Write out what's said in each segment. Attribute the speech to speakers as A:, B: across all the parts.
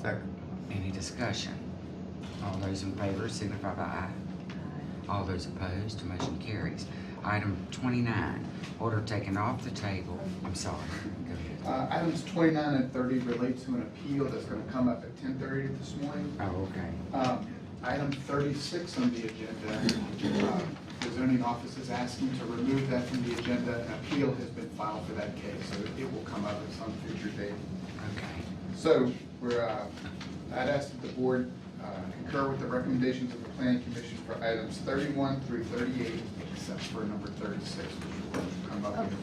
A: Second.
B: Any discussion? All those in favor signify by aye. All those opposed, motion carries. Item twenty-nine, order taken off the table, I'm sorry, go ahead.
A: Uh, items twenty-nine and thirty relate to an appeal that's gonna come up at ten thirty this morning.
B: Oh, okay.
A: Um, item thirty-six on the agenda, uh, the zoning office is asking to remove that from the agenda. An appeal has been filed for that case, so it will come up at some future date.
B: Okay.
A: So we're, uh, I'd ask that the board uh, concur with the recommendations of the planning commission for items thirty-one through thirty-eight, except for number thirty-six, which will come up here.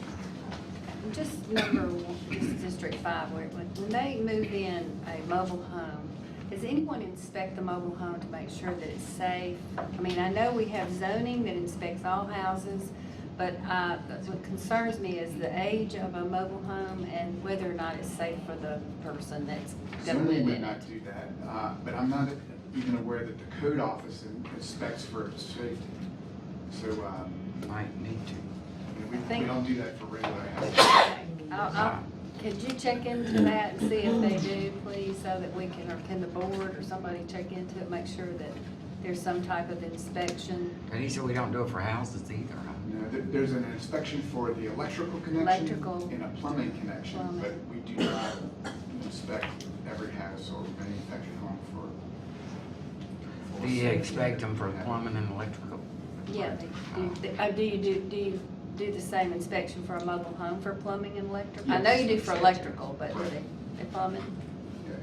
C: Just number one, this is District Five, where it went- when they move in a mobile home, does anyone inspect the mobile home to make sure that it's safe? I mean, I know we have zoning that inspects all houses, but uh, what concerns me is the age of a mobile home and whether or not it's safe for the person that's gonna
A: Zoning
C: live
A: would
C: in it.
A: not do that, uh, but I'm not even aware that the code office inspects for safety. So, um,
B: Might need to.
A: you know, we, we
C: Think-
A: don't do that for regular houses.
C: I'll-
B: Uh,
C: I'll- Could you check into that and see if they do, please, so that we can, or can the board or somebody check into it, make sure that there's some type of inspection?
B: But he said we don't do it for houses either, huh?
A: You know, there- there's an inspection for the electrical connection
C: Electrical.
A: and a plumbing connection, but
C: Plumbing.
A: we do not inspect every house or manufactured home for. for
B: Do you
A: safety.
B: expect them for plumbing and electrical?
C: Yeah, they do, oh, do you do, do you do the same inspection for a mobile home for plumbing and electric? I know you do for electrical, but do they, they plumbing?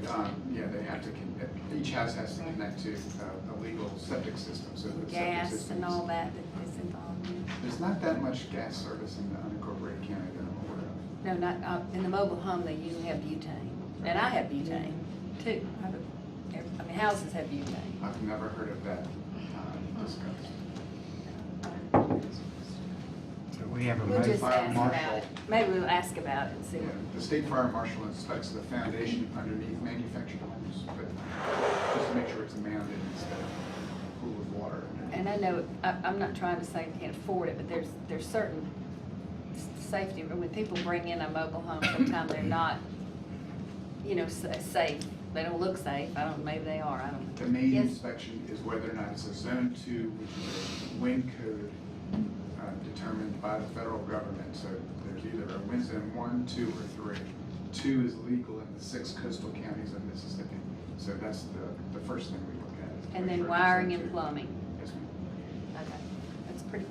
A: Yeah, um, Yeah, they have to, con- each house has to connect to uh, a legal septic system, so the septic
C: Gas
A: system
C: and
A: is
C: all that that is involved in?
A: There's not that much gas service in the unincorporated county that I'm aware of.
C: No, not, uh, in the mobile home, they usually have butane, and I have butane too. I have a- every- I mean, houses have butane.
A: I've never heard of that uh, discussed.
B: So we have a
C: We'll just
B: motion,
C: ask about
A: Marshall.
C: it. Maybe we'll ask about it and see.
A: Yeah,
C: what-
A: The state fire marshal inspects the foundation underneath manufactured homes, but just to make sure it's mounded instead of a pool of water.
C: And I know, I, I'm not trying to say we can't afford it, but there's, there's certain s- safety, when people bring in a mobile home, sometimes they're not, you know, sa- safe. They don't look safe. I don't, maybe they are, I don't.
A: The main
C: Yes.
A: inspection is whether or not it's a zone two, which is a wind code uh, determined by the federal government. So there's either a wind zone one, two, or three. Two is legal in the six coastal counties of Mississippi. So that's the, the first thing we look at. is to
C: And
A: make sure
C: then
A: it's
C: wiring
A: zone
C: and
A: two.
C: plumbing.
A: Yes, ma'am.
C: Okay, that's pretty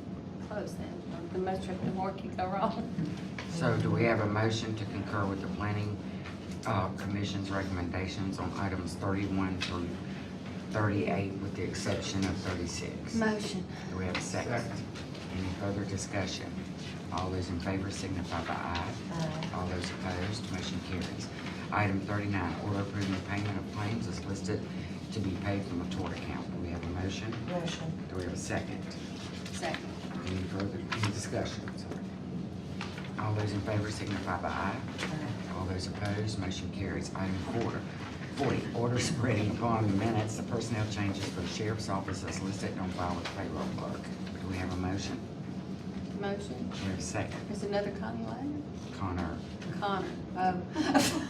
C: close then. The most, the more can go wrong.
B: so do we have a motion to concur with the planning, uh, commission's recommendations on items thirty-one through thirty-eight with the exception of thirty-six?
C: Motion.
B: Do we have a second? Any further discussion? All those in favor signify by aye. All those opposed, motion carries. Item thirty-nine, order approving the payment of claims is listed to be paid from a tort account. Do we have a motion?
D: Motion.
B: Do we have a second?
C: Second.
B: Any further, any discussion? Sorry. All those in favor signify by aye. All those opposed, motion carries. Item four, forty, order spreading upon the minutes the personnel changes for the sheriff's office as listed on file with payroll clerk. Do we have a motion?
C: Motion.
B: Do we have a second?
C: There's another Connie Wagner?
B: Connor,
C: Connor. Oh.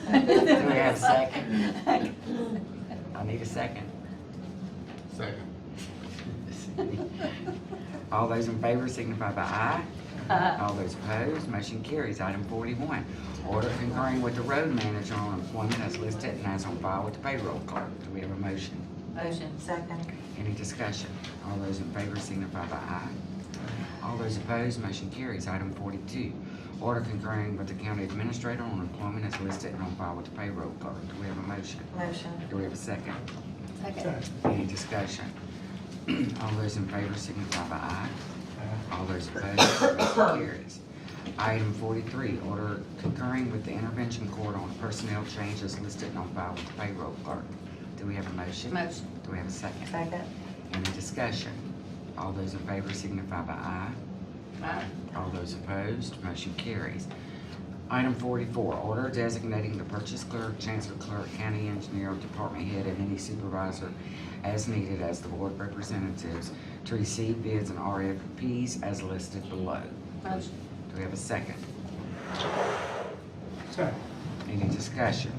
B: we have a second? I need a second. Second. All those in favor signify by aye.
C: Aye.
B: All those opposed, motion carries. Item forty-one, order concurring with the road manager on employment as listed and as on file with the payroll clerk. Do we have a motion?
C: Motion.
D: Second.
B: Any discussion? All those in favor signify by aye. All those opposed, motion carries. Item forty-two, order concurring with the county administrator on employment as listed and on file with the payroll clerk. Do we have a motion?
D: Motion.
B: Do we have a second?
C: Second.
B: Any discussion? All those in favor signify by aye. All those opposed, motion carries. Item forty-three, order concurring with the intervention court on personnel changes listed and on file with the payroll clerk. Do we have a motion?
C: Motion.
B: Do we have a second?
D: Second.
B: Any discussion? All those in favor signify by aye.
C: Aye.
B: All those opposed, motion carries. Item forty-four, order designating the purchase clerk, chancellor clerk, county engineer, department head, and any supervisor as needed as the board representatives to receive bids and RFPs as listed below.
C: Motion.
B: Do we have a second? Any discussion?